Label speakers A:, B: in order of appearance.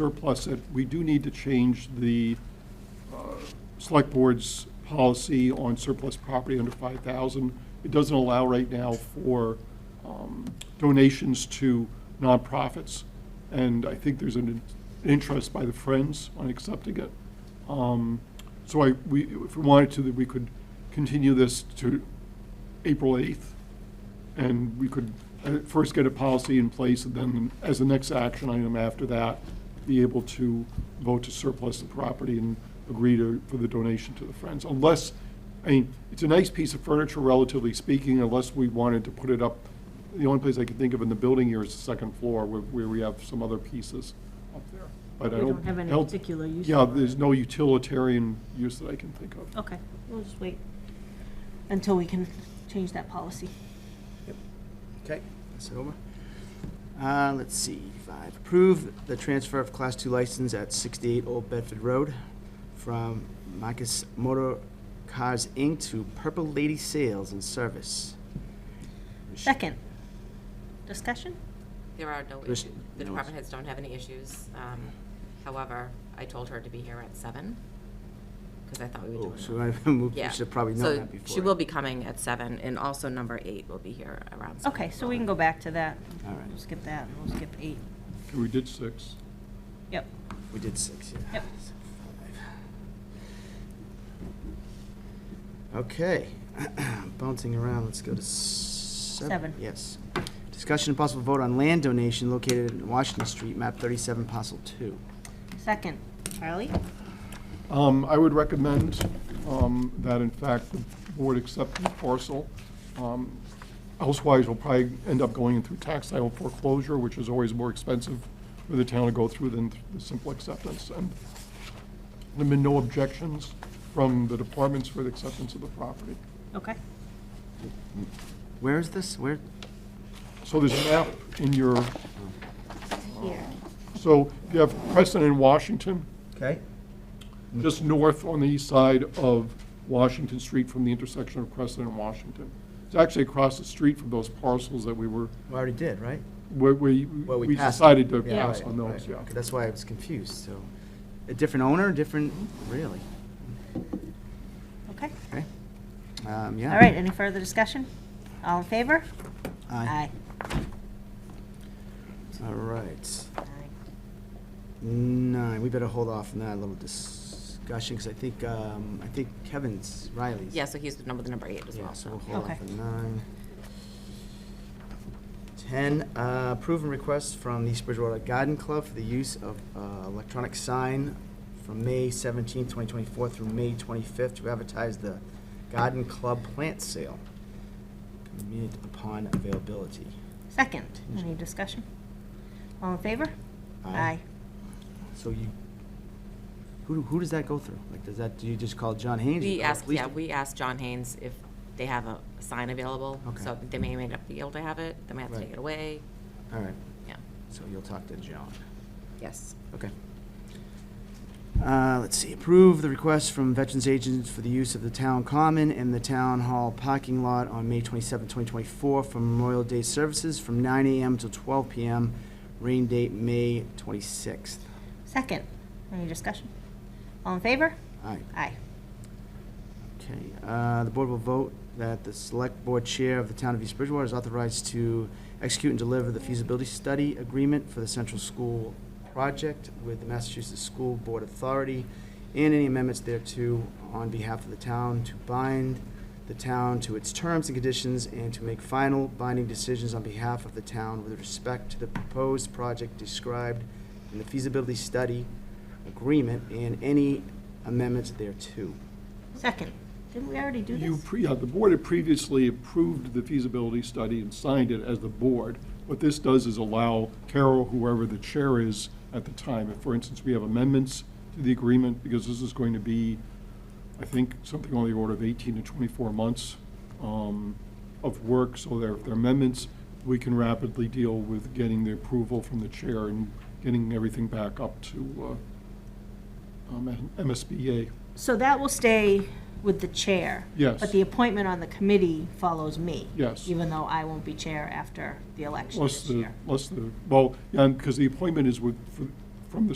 A: surplus it, we do need to change the uh, select board's policy on surplus property under 5,000. It doesn't allow right now for um, donations to nonprofits, and I think there's an an interest by the Friends on accepting it. Um, So I, we, if we wanted to, that we could continue this to April 8th, and we could uh, first get a policy in place, and then as the next action item after that, be able to vote to surplus the property and agree to, for the donation to the Friends. Unless, I mean, it's a nice piece of furniture, relatively speaking, unless we wanted to put it up. The only place I can think of in the building here is the second floor, where, where we have some other pieces up there. But I
B: They
A: don't.
B: don't have any
A: I don't-
B: particular use
A: Yeah,
B: for it.
A: there's no utilitarian use that I can think of.
B: Okay, we'll just wait until we can change that policy.
C: Okay, that's over. Uh, let's see, five, approve the transfer of Class Two license at sixty-eight Old Bedford Road from Marcus Motor Cars, Inc. to Purple Lady Sales and Service.
B: Second, discussion?
D: There are no
C: There's
D: issues. The
C: no
D: department heads don't have any issues. Um, However, I told her to be here at seven, because I thought we
C: Oh,
D: were
C: so
D: doing that.
C: I moved,
D: Yeah.
C: we should probably know
D: So
C: that before.
D: She will be coming at seven, and also number eight will be here around seven.
B: Okay,
D: as
B: so
D: well.
B: we can go back to that.
C: All right.
B: We'll skip that, and we'll skip eight.
A: Okay, We did six.
B: Yep,
C: We did six, yeah.
B: Yep.
C: So five. Okay, bouncing around, let's go to seven.
B: Seven.
C: Yes. Discussion and possible vote on land donation located in Washington Street, map thirty-seven, parcel two.
B: second, Charlie?
A: Um, I would recommend, um, that in fact the board accept the parcel. Um, Elsewise, we'll probably end up going through tax sale foreclosure, which is always more expensive for the town to go through than th- the simple acceptance. And there've been no objections from the departments for the acceptance of the property.
B: Okay,
C: Where is this? Where?
A: So there's a map in your,
B: here.
A: so you have Crescent in Washington,
C: Okay.
A: just north on the east side of Washington Street from the intersection of Crescent and Washington. It's actually across the street from those parcels that we were,
C: We already did, right?
A: where we,
C: Well,
A: we
C: passed-
A: decided to
C: yeah,
A: pass
C: right,
A: on those,
C: right.
A: yeah.
C: Okay, That's why I was confused, so, a different owner, different, really?
B: Okay,
C: Okay. Um, yeah.
B: all right, any further discussion? All in favor?
C: Aye. All right. Nine, we better hold off on that little discussion, because I think, um, I think Kevin's, Riley's.
D: Yeah, so he's the number, the number eight as
C: Yeah,
D: well.
C: so we'll hold off
B: Okay.
C: on nine. Ten, uh, approve and request from the East Bridgewater Garden Club for the use of, uh, electronic sign from May seventeenth, twenty twenty-four through May twenty-fifth to advertise the garden club plant sale. Convenient upon availability.
B: Second, any discussion? All in favor?
C: Aye. So you, who, who does that go through? Like, does that, do you just call John Haynes? You
D: We
C: call the
D: asked,
C: police
D: yeah,
C: de-
D: we asked John Haynes if they have a sign available.
C: Okay.
D: So they may, may not be able to have it, they may have to
C: Right.
D: take it away.
C: All right,
D: Yeah,
C: so you'll talk to John.
D: yes.
C: Okay. Uh, let's see, approve the request from Veterans Agents for the use of the town common and the town hall parking lot on May 27, 2024 for Memorial Day services from 9 AM till 12 PM, rain date May 26th.
B: Second, any discussion? All in favor?
C: All right.
B: Aye.
C: Okay, uh, the board will vote that the select board chair of the town of East Bridgewater is authorized to execute and deliver the feasibility study agreement for the central school project with the Massachusetts School Board Authority and any amendments thereto on behalf of the town to bind the town to its terms and conditions and to make final binding decisions on behalf of the town with respect to the proposed project described in the feasibility study agreement and any amendments thereto.
B: Second, didn't we already do
A: You,
B: this?
A: pre- yeah, the board had previously approved the feasibility study and signed it as the board. What this does is allow Carol, whoever the chair is at the time, if, for instance, we have amendments to the agreement, because this is going to be, I think, something on the order of 18 to 24 months um, of work, so there, if there are amendments, we can rapidly deal with getting the approval from the chair and getting everything back up to uh, um, MSBA.
B: So that will stay with the chair?
A: Yes.
B: But the appointment on the committee follows me?
A: Yes.
B: Even though I won't be chair after the election
A: Unless
B: this
A: the,
B: year?
A: unless the, well, yeah, because the appointment is with, for- from the